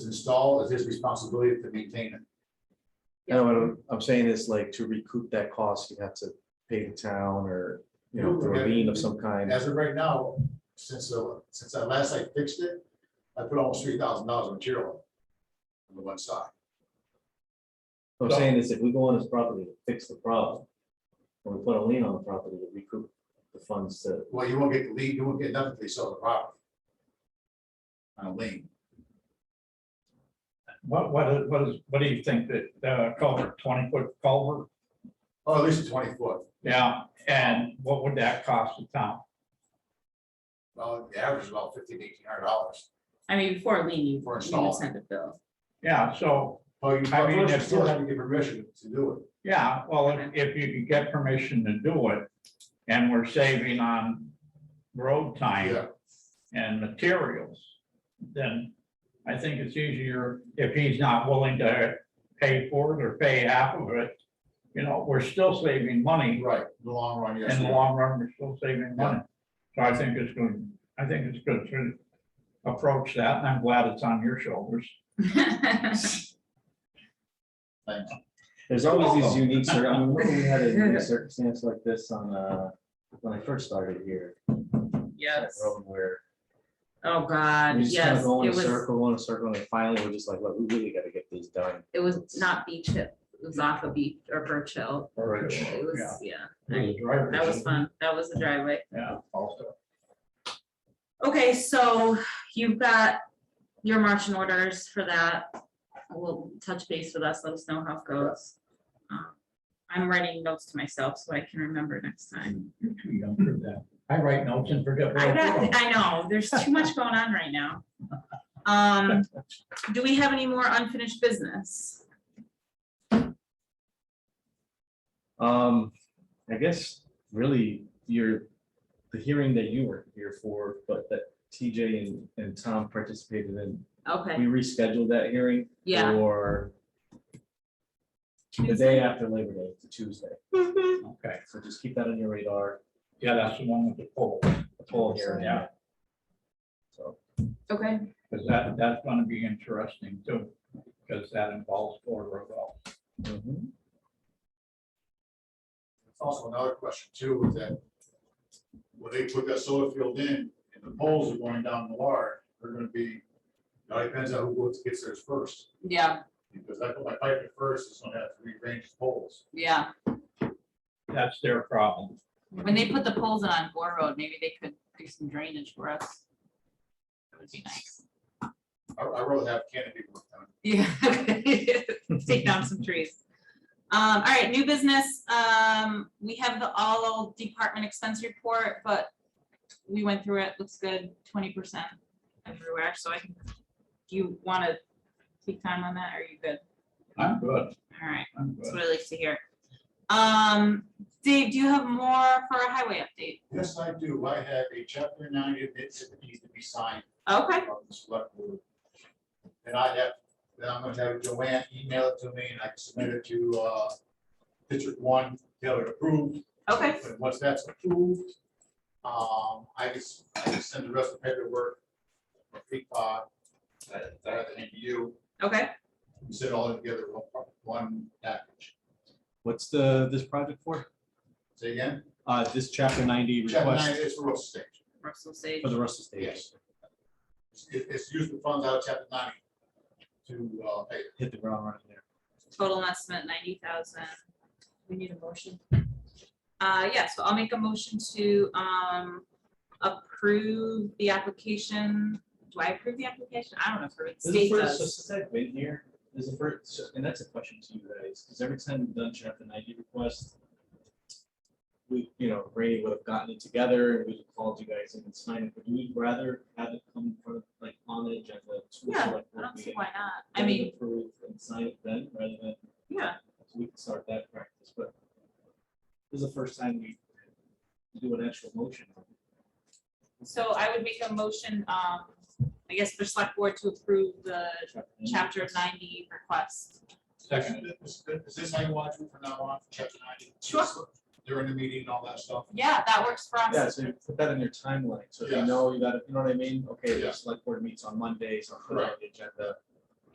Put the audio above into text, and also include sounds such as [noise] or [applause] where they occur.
install is his responsibility to maintain it. No, what I'm, I'm saying is like to recoup that cost, you have to pay the town or, you know, through a lien of some And kind. as of right now, since, uh, since I last I fixed it, I put almost three thousand dollars of material on the one side. What I'm saying is if we go on this property to fix the problem, and we put a lien on the property to recoup the funds to, Well, you won't get the lead, you won't get nothing if they sell the property. On a lien. What, what is, what is, what do you think that uh, culvert, twenty foot culvert? Oh, at least a twenty foot. Yeah, and what would that cost the town? Well, the average is about fifteen, eighteen hundred dollars. I mean, before lean, you For you install. send a [laughs] bill. [laughs] Yeah, so, Well, you I first, you mean, that's- still have to get permission to do it. yeah, well, if- if you could get permission to do it, and we're saving on road time Yeah, and materials, then I think it's easier if he's not willing to pay for it or pay half of it. You know, we're still saving money right, in the long run, yes. In the yeah. long run, we're still saving money. So I think it's good, I think it's good to approach that, and I'm glad it's on your shoulders. Thanks. there's always these unique, cir- I mean, remember we had a unique circumstance like this on, uh, when I first started here. that Yes, road Where oh God, we just kind yes, of it go in a was, circle, go in a circle, and finally we're just like, look, we really gotta get these done. it was not beach hip, it was off of beach or Birch Hill. Or it's- It yeah, was, yeah, for the drivers. that was fun, that was the driveway. Yeah, also. Okay, so you've got your marching orders for that. We'll touch base with us, let us know how it goes. Um, I'm writing notes to myself so I can remember next time. You're too young for that. I write notes and forget. what I I'm doing. got, I know, there's too much going on right now. Um, do we have any more unfinished business? Um, I guess really you're, the hearing that you were here for, but that TJ and, and Tom participated in, Okay, we rescheduled that hearing. yeah. For the day after Labor Day, to Tuesday. Mhm. Okay, So just keep that on your radar, yeah, that's the one with the poll, the poll hearing. Yeah. So, Okay, because that, that's gonna be interesting too, because that involves border well. mhm. It's Also, another question too, is that when they put that solar field in and the poles are going down the wire, they're gonna be, now it depends on who gets- gets theirs first. yeah, Because I put my pipe in first, it's gonna have to rearrange the poles. yeah. That's their problem. When they put the poles in on Gore Road, maybe they could do some drainage for us. That would be nice. I, I really have canopy work done. Yeah. [laughs] Take down some trees. Um, all right, new business. Um, we have the all department expense report, but we went through it. Looks good, twenty percent everywhere. So I can, do you want to take time on that? or Are you good? I'm good, All right, I'm that's good. what I like to hear. Um, Dave, do you have more for a highway update? Yes, I do. I have a chapter nine admit that needs to be signed Okay, by the select board. And I have, then I'm gonna have Joanne email it to me and I can submit it to, uh, district one, get it approved. okay, And once that's approved, um, I just, I just send the rest of the paperwork. Big pot, that, that I hand to you, okay. you sit all together, in one- one package. What's the, this project for? Say again, Uh, this chapter ninety chapter nine request is for real estate, Russell Sage. for the Russell State, yes. It, it's used the funds out of chapter ninety to, uh, pay. hit the ground running there. total estimate ninety thousand. We need a motion. Uh, yeah, so I'll make a motion to, um, approve the application. Do I approve the application? I don't know if the This is state the first, so does. since I've been here, this is the first, so- and that's a question to you guys, because every time we've done chapter ninety requests, we, you know, Ray would have gotten it together and we'd have called you guys in and signed it, but we'd rather have it come from, like, on the agenda. to a Yeah, select I board don't see meeting, why not. I then mean, approve And sign it then, rather than yeah, So we can start that practice, but this is the first time we do an actual motion. so I would make a motion, um, I guess for select board to approve the chapter of ninety request. Second, Is is this how you want to do from now on, chapter ninety? Sure. During the meeting and all that stuff? Yeah, that works for Yeah, us. so you put that in your timeline, so if you Yes. know, you got, you know what I mean? Okay, Yeah. the select board meets on Mondays, I'll put it on the agenda.